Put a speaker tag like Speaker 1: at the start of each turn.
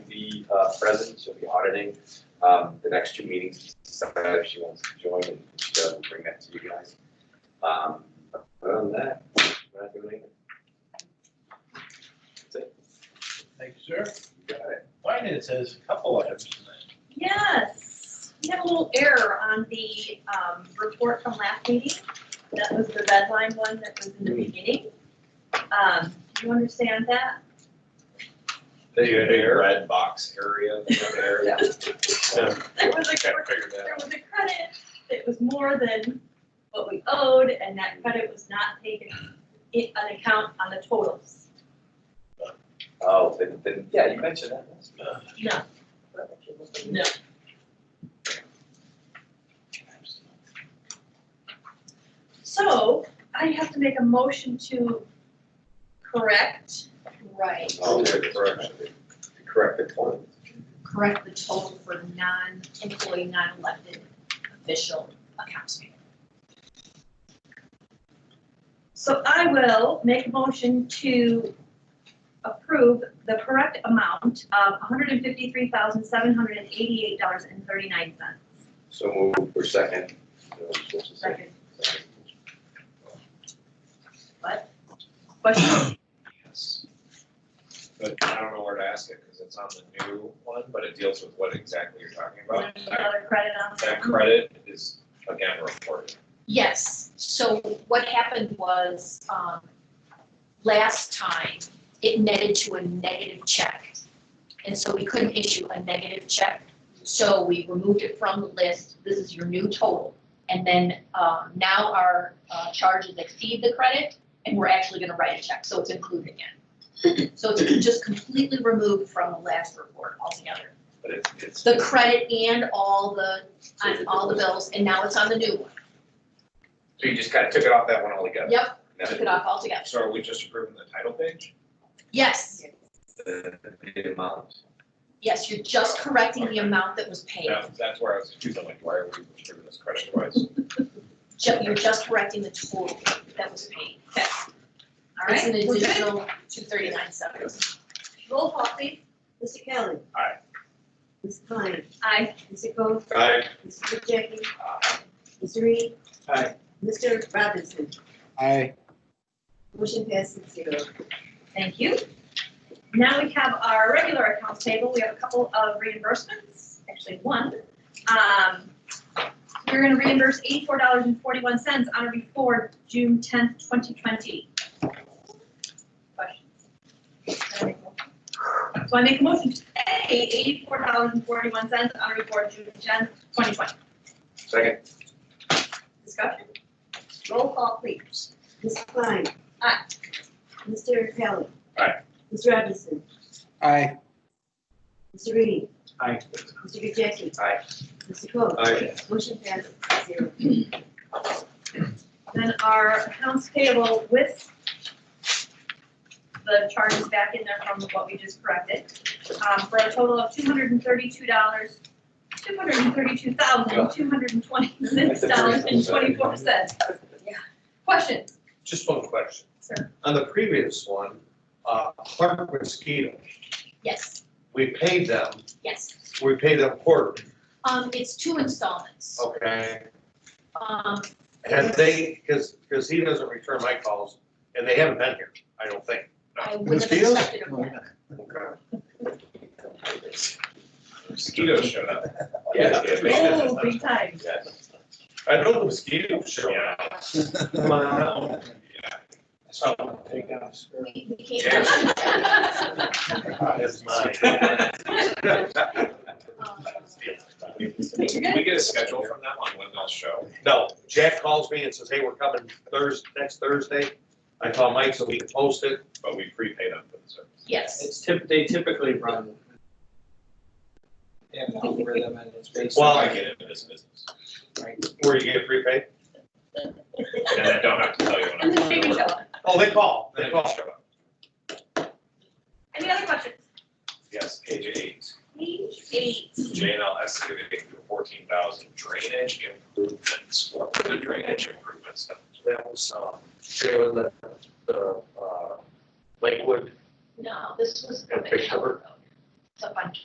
Speaker 1: uh, present, she'll be auditing. Um, the next two meetings, decide if she wants to join, and she doesn't bring that to you guys. Um, other than that, we're not doing anything. That's it.
Speaker 2: Thank you, sir.
Speaker 1: You got it.
Speaker 2: Finance has a couple items tonight.
Speaker 3: Yes, we had a little error on the um, report from last meeting. That was the red line one that was in the beginning. Um, Do you understand that?
Speaker 4: The big red box area there.
Speaker 3: Yeah. There was a,
Speaker 4: Kind
Speaker 3: there
Speaker 4: of figured that.
Speaker 3: was a credit that was more than what we owed, and that credit was not taken in an account on the totals.
Speaker 1: Oh, then, then, yeah, you mentioned that. That's-
Speaker 3: No, no. So I have to make a motion to correct, right,
Speaker 1: Oh, there it is. Correct the point.
Speaker 3: correct the total for non-employee, non-elected official accounts payable. So I will make a motion to approve the correct amount of hundred and fifty-three thousand, seven hundred and eighty-eight dollars and thirty-nine cents.
Speaker 1: So move for second. So we're supposed to say-
Speaker 3: Second, question?
Speaker 4: Yes. But I don't know where to ask it because it's on the new one, but it deals with what exactly you're talking about.
Speaker 3: There's
Speaker 4: That-
Speaker 3: Another credit on
Speaker 4: That
Speaker 3: that?
Speaker 4: credit is again reported.
Speaker 5: Yes, so what happened was, um, last time, it netted to a negative check. And so we couldn't issue a negative check, so we removed it from the list, this is your new total. And then, um, now our, uh, charges exceed the credit, and we're actually gonna write a check, so it's included again. So it's just completely removed from the last report altogether.
Speaker 4: But it's, it's,
Speaker 5: The credit and all the, on all the bills, and now it's on the new one.
Speaker 1: So you just kind of took it off that one altogether?
Speaker 5: Yep,
Speaker 1: Now-
Speaker 5: took it off altogether.
Speaker 4: so are we just approving the title page?
Speaker 5: Yes,
Speaker 1: the, the amount.
Speaker 5: yes, you're just correcting the amount that was paid.
Speaker 4: That, that's where I was confused, like, why are we approving this credit twice?
Speaker 5: Ju- You're just correcting the total that was paid.
Speaker 3: All
Speaker 5: It's an
Speaker 3: right, we're good.
Speaker 5: additional two thirty-nine seven.
Speaker 3: Roll call, please.
Speaker 6: Mr. Kelly.
Speaker 4: Aye.
Speaker 6: Ms. Klein.
Speaker 3: Aye.
Speaker 6: Mr. Coe.
Speaker 4: Aye.
Speaker 6: Mr. Jackie. Mr. Reed.
Speaker 4: Aye.
Speaker 6: Mr. Robinson.
Speaker 7: Aye.
Speaker 6: Motion passes zero.
Speaker 3: Thank you. Now we have our regular accounts table. We have a couple of reimbursements, actually one. Um, We're gonna reimburse eighty-four dollars and forty-one cents on or before June tenth, twenty twenty. Questions? Can I make a motion? So I make a motion to pay eighty-four dollars and forty-one cents on or before June tenth, twenty twenty.
Speaker 1: Second.
Speaker 3: Discussion? Roll call, please.
Speaker 6: Ms. Klein.
Speaker 3: Aye.
Speaker 6: Mr. Kelly.
Speaker 4: Aye.
Speaker 6: Ms. Robinson.
Speaker 7: Aye.
Speaker 6: Mr. Reed.
Speaker 4: Aye.
Speaker 6: Mr. Jackie.
Speaker 1: Aye.
Speaker 6: Mr. Coe.
Speaker 4: Aye.
Speaker 6: Motion passes zero.
Speaker 3: Then our accounts payable with the charges back in there from what we just corrected, um, for a total of two hundred and thirty-two dollars, two hundred and thirty-two thousand, two hundred and twenty-six dollars and twenty-four cents. Questions?
Speaker 8: Just one question.
Speaker 3: Sir.
Speaker 8: On the previous one, uh, Clark Mosquito,
Speaker 5: Yes,
Speaker 8: we paid them,
Speaker 5: yes.
Speaker 8: we paid them quarterly,
Speaker 5: Um, it's two
Speaker 4: Oh.
Speaker 5: installments.
Speaker 8: okay?
Speaker 5: Um,
Speaker 8: And they, because, because he doesn't return my calls, and they haven't been here, I don't think.
Speaker 5: I would have
Speaker 7: Mosquitoes?
Speaker 5: accepted them. then.
Speaker 8: Okay.
Speaker 4: Mosquitoes showed up.
Speaker 1: Yeah.
Speaker 3: Oh, big time.
Speaker 8: I know the mosquitoes show up.
Speaker 4: Yeah.
Speaker 8: Come on out.
Speaker 4: Yeah.
Speaker 8: So, take us.
Speaker 5: We, we came.
Speaker 8: It's mine.
Speaker 5: Um,
Speaker 4: Can we get a schedule from them on when they'll show?
Speaker 8: No, Jack calls me and says, hey, we're coming Thursday, next Thursday. I call Mike so we can post it.
Speaker 4: But we prepay them for the service.
Speaker 5: Yes.
Speaker 9: It's tip, they typically run. an algorithm and it's based
Speaker 8: Well,
Speaker 4: Well,
Speaker 9: on,
Speaker 4: I get into this business.
Speaker 8: Where you get prepaid?
Speaker 4: And I don't have to tell you when
Speaker 3: And
Speaker 4: I'm.
Speaker 3: then they can show up.
Speaker 8: Oh, they call,
Speaker 4: They
Speaker 8: they
Speaker 4: all
Speaker 8: call.
Speaker 4: show up.
Speaker 3: Any other questions?
Speaker 4: Yes, page eight,
Speaker 3: Page eight.
Speaker 4: J and L excavating for fourteen thousand drainage improvements, what were the drainage improvements?
Speaker 8: That was, um, showing the, the, uh, Lakewood
Speaker 5: No, this was.
Speaker 8: And picture.
Speaker 5: It's up on